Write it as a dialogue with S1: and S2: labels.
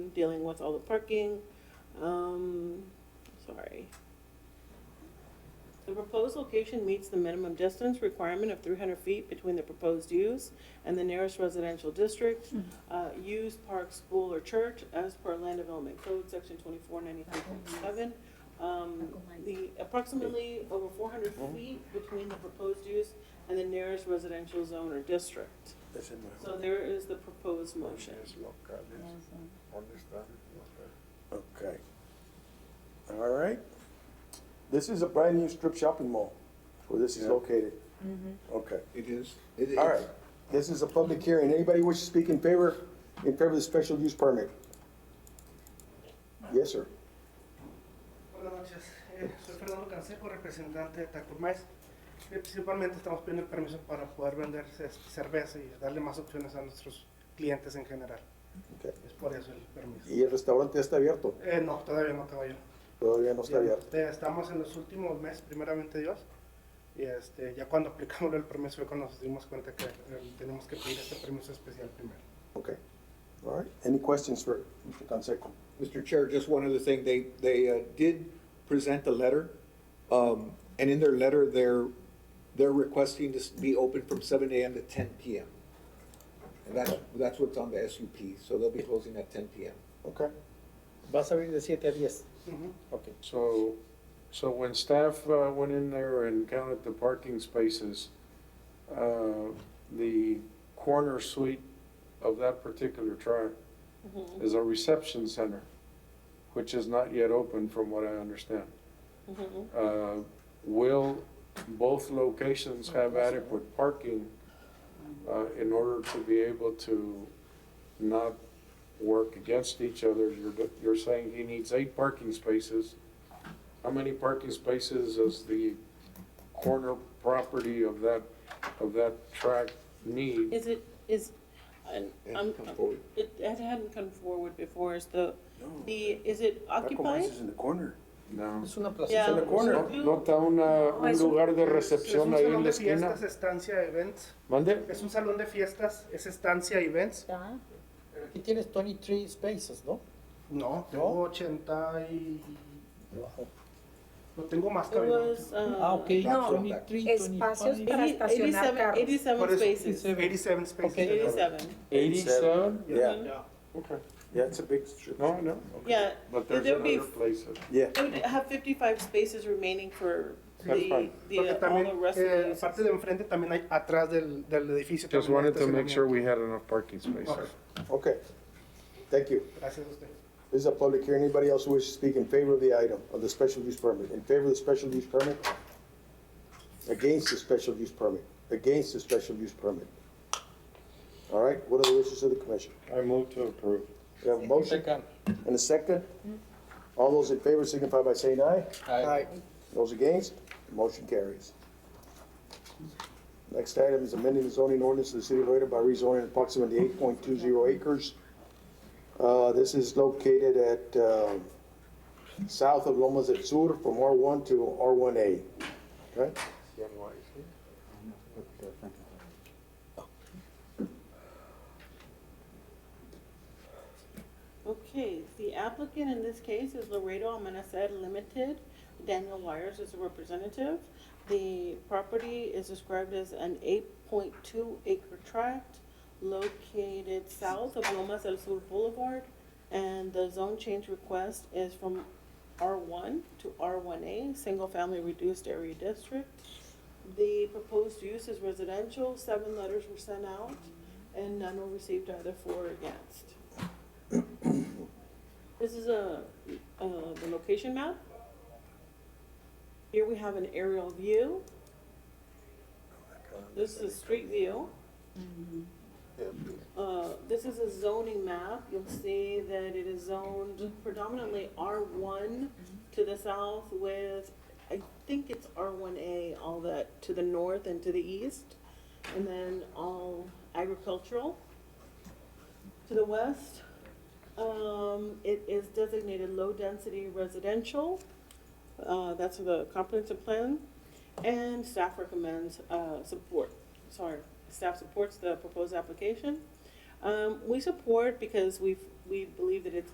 S1: dealing with all the parking. Um, sorry. The proposed location meets the minimum distance requirement of three hundred feet between the proposed use and the nearest residential district, uh, used park, school, or church as per land development code, section twenty-four ninety-three point seven. Um, the approximately over four hundred feet between the proposed use and the nearest residential zone or district.
S2: Es el
S1: So
S2: mejor.
S1: there is the proposed motion.
S3: Los locales, ¿dónde están los locales?
S2: Okay. All right. This is a brand new strip shopping mall where this is
S3: Yeah.
S2: located.
S1: Mm-hmm.
S2: Okay.
S3: It is. It is.
S2: All right. This is a public hearing. Anybody wish to speak in favor, in favor of the special use permit? Yes, sir.
S4: Buenas noches, Eh, soy Fernando Canseco, representante de Tacomais. Eh, Principalmente estamos pidiendo el permiso para poder vender ce- cerveza y darle más opciones a nuestros clientes en general.
S2: Okay.
S4: Es por eso el permiso.
S2: Y el restaurante ya está abierto.
S4: Eh, no, todavía no caballo.
S2: Todavía no está abierto.
S4: Eh, estamos en los últimos meses, primeramente Dios. Y este, ya cuando aplicamos el permiso fue cuando nos dimos cuenta que eh, tenemos que pedir este permiso especial primero.
S2: Okay. All right. Any questions for Mr. Canseco?
S5: Mr. Chair, just one other thing, they, they uh, did present a letter, um, and in their letter, they're, they're requesting this be open from seven AM to ten PM. And that's, that's what's on the SUP, so they'll be closing at ten PM.
S2: Okay.
S6: Vas a abrir de 7 a 10.
S4: Ujú.
S2: Okay.
S7: So, so when staff uh, went in there and counted the parking spaces, uh, the corner suite of that particular track is a reception center, which is not yet open from what I understand. Uh, Will both locations have adequate parking uh, in order to be able to not work against each other? You're, you're saying he needs eight parking spaces. How many parking spaces does the corner property of that, of that track need?
S1: Is it, is, I-
S5: It
S1: I'm,
S5: hasn't come forward.
S1: it it hadn't come forward before, is the,
S2: No.
S1: the, is it occupied?
S2: Tacomais is in the corner.
S7: No.
S6: Es una plaza.
S1: Yeah.
S2: in the corner.
S7: No, no está una, un lugar de
S4: es
S7: recepción
S4: un
S7: ahí
S4: salón
S7: en la
S4: de
S7: esquina.
S4: fiestas, estancia, events.
S7: ¿Mande?
S4: Es un salón de fiestas, es estancia, events.
S6: Aquí tienes 23 spaces, ¿no?
S4: No, tengo 80 y
S6: Wow.
S4: No tengo más
S1: It
S4: cabello.
S1: was, uh.
S6: Ah, ok.
S5: No,
S6: 23,
S8: espacios
S6: 25.
S8: para
S1: eighty-
S8: estacionar
S1: 87
S8: carros.
S4: Por
S1: 87
S4: eso-
S1: spaces,
S4: 87 spaces.
S6: Ok.
S1: eighty-seven.
S7: Eighty-seven?
S2: Yeah.
S4: Yeah.
S7: Okay.
S2: Yeah, it's a big strip.
S7: No, no.
S1: Yeah,
S7: But
S1: There
S7: there's
S1: would be-
S7: another place. that-
S2: Yeah.
S1: it would have fifty-five spaces remaining for
S7: That's
S1: the,
S7: fine.
S1: the,
S4: Porque
S1: uh, all
S4: también,
S1: the rest of
S4: eh,
S1: the uses.
S4: aparte de enfrente, también hay atrás del, del edificio. también
S7: Just
S4: hay
S7: wanted to make sure we
S4: estacionamiento.
S7: had enough parking
S4: Okay.
S7: spaces.
S2: Okay. Thank you.
S4: Gracias a usted.
S2: This is a public hearing. Anybody else who wishes to speak in favor of the item, of the special use permit? In favor of the special use permit? Against the special use permit? Against the special use permit? All right, what are the wishes of the commission?
S7: I move to approve.
S2: We have a motion
S6: Second.
S2: and a second. All those in favor signify by saying aye.
S6: Aye.
S2: Those against, motion carries. Next item is amending the zoning ordinance of the city of Lloyd by rezoning approximately eight point two zero acres. Uh, this is located at, um, south of Lomas del Sur from R one to R one A. Okay?
S1: Okay, the applicant in this case is Laredo Amenazed Limited. Daniel Wires is the representative. The property is described as an eight point two acre tract located south of Lomas del Sur Boulevard. And the zone change request is from R one to R one A, single family reduced area district. The proposed use is residential. Seven letters were sent out and none were received either for or against. This is a, uh, the location map. Here we have an aerial view. This is a street view. Uh, this is a zoning map. You'll see that it is zoned predominantly R one to the south with, I think it's R one A, all that, to the north and to the east. And then all agricultural. To the west, um, it is designated low-density residential. Uh, that's the comprehensive plan. And staff recommends, uh, support, sorry, staff supports the proposed application. Um, we support because we've, we believe that it's